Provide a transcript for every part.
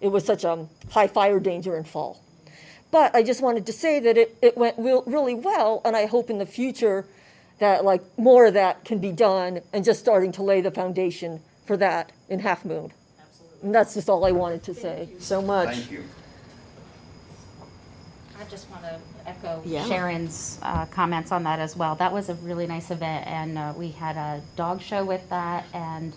it was such a high fire danger in fall. But I just wanted to say that it, it went real, really well, and I hope in the future that like more of that can be done and just starting to lay the foundation for that in Half Moon. Absolutely. And that's just all I wanted to say so much. Thank you. I just want to echo Yeah. Sharon's uh, comments on that as well. That was a really nice event, and uh, we had a dog show with that, and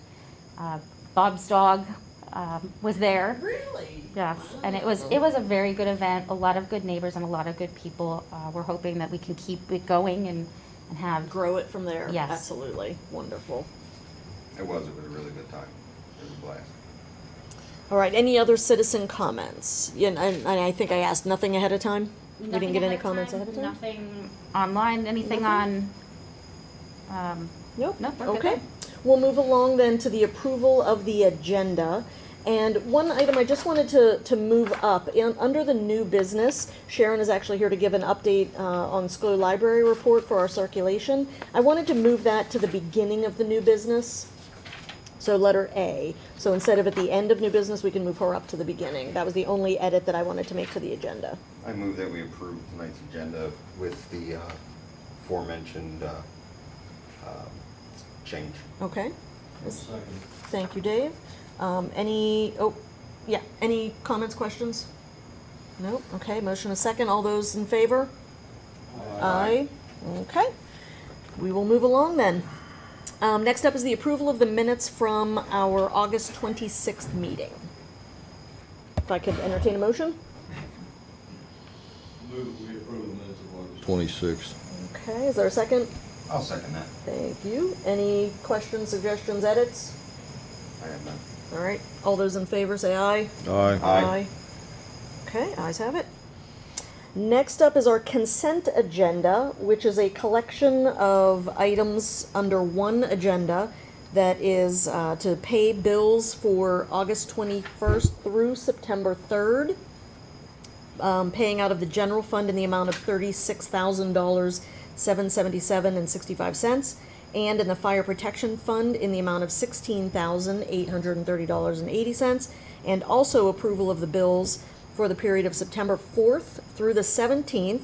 uh, Bob's dog um, was there. Really? Yes, and it was, it was a very good event, a lot of good neighbors and a lot of good people. Uh, We're hoping that we can keep it going and, and have, Grow it from there? Yes. Absolutely. Wonderful. It was, it was a really good time. It was a blast. All right, any other citizen comments? Yeah, And, and I think I asked nothing ahead of time? We didn't Nothing get any ahead of comments time, ahead of time? Nothing online, anything on, um, Nope. Nope, we're good Okay. there. We'll move along then to the approval of the agenda. And one item I just wanted to, to move up, in, under the new business, Sharon is actually here to give an update, uh, on School Library Report for our circulation. I wanted to move that to the beginning of the new business. So letter A. So instead of at the end of new business, we can move her up to the beginning. That was the only edit that I wanted to make to the agenda. I move that we approve tonight's agenda with the uh, aforementioned uh, um, change. Okay? Second. Thank you, Dave. Um, any, oh, yeah, any comments, questions? Nope, okay, motion a second, all those in favor? Aye. Okay, we will move along then. Um, next up is the approval of the minutes from our August twenty-sixth meeting. If I could entertain a motion? Move, we approve the minutes of August. 26. Okay, is there a second? I'll second that. Thank you. Any questions, suggestions, edits? I have none. All right, all those in favor say aye. Aye. Aye. Okay, eyes have it. Next up is our consent agenda, which is a collection of items under one agenda that is uh, to pay bills for August 21st through September 3rd, um, paying out of the general fund in the amount of $36,777.65, and in the fire protection fund in the amount of $16,830.80, and also approval of the bills for the period of September 4th through the 17th,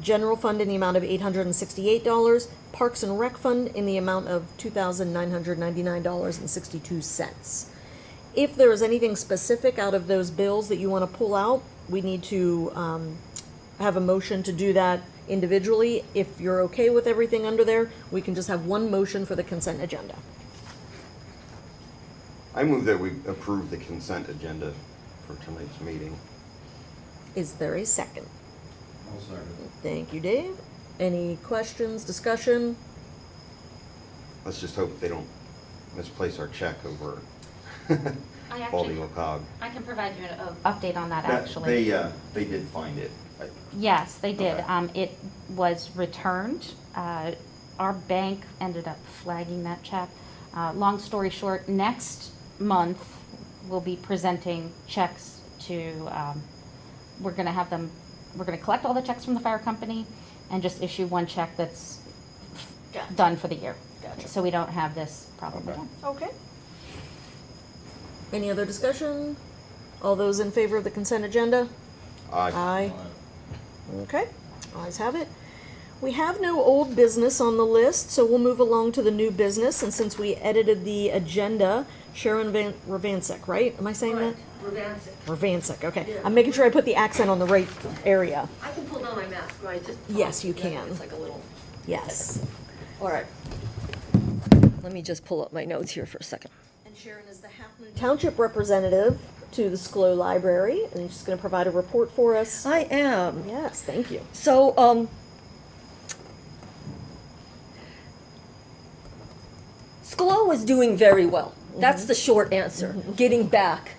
general fund in the amount of $868, parks and rec fund in the amount of $2,999.62. If there is anything specific out of those bills that you want to pull out, we need to um, have a motion to do that individually. If you're okay with everything under there, we can just have one motion for the consent agenda. I move that we approve the consent agenda for tonight's meeting. Is there a second? I'll second. Thank you, Dave. Any questions, discussion? Let's just hope they don't misplace our check over I Baldy actually, LaCog. I can provide you an uh, update on that That- actually. They, uh, they did find it. I- Yes, they did. Okay. Um, it was returned. Uh, our bank ended up flagging that check. Uh, long story short, next month we'll be presenting checks to, um, we're gonna have them, we're gonna collect all the checks from the fire company and just issue one check that's done for the year. Gotcha. So we don't have this problem Okay. again. Okay. Any other discussion? All those in favor of the consent agenda? Aye. Aye. Okay, eyes have it. We have no old business on the list, so we'll move along to the new business, and since we edited the agenda, Sharon Van, Ravansek, right? Am I saying that? Revance, Ravansek, okay. Yeah. I'm making sure I put the accent on the right area. I can pull down my mask, right? Just- Yes, you Yeah, can. It's like a little, Yes. all right. Let me just pull up my notes here for a second. And Sharon is the Half Moon Township representative to the SCLO Library, and she's gonna provide a report for us. I am. Yes, thank you. So, um, SCLO is doing very well. That's the short answer. Getting back.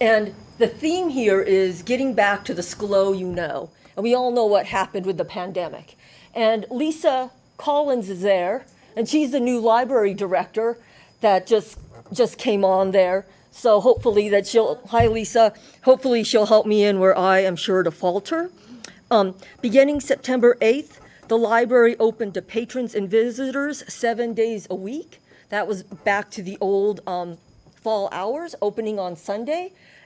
And the theme here is getting back to the SCLO you know. And we all know what happened with the pandemic. And Lisa Collins is there, and she's the new library director that just just came on there. So hopefully that she'll hi Lisa. Hopefully she'll help me in where I am sure to falter. Um, beginning September 8th, the library opened to patrons and visitors seven days a week. That was back to the old um, fall hours, opening on Sunday.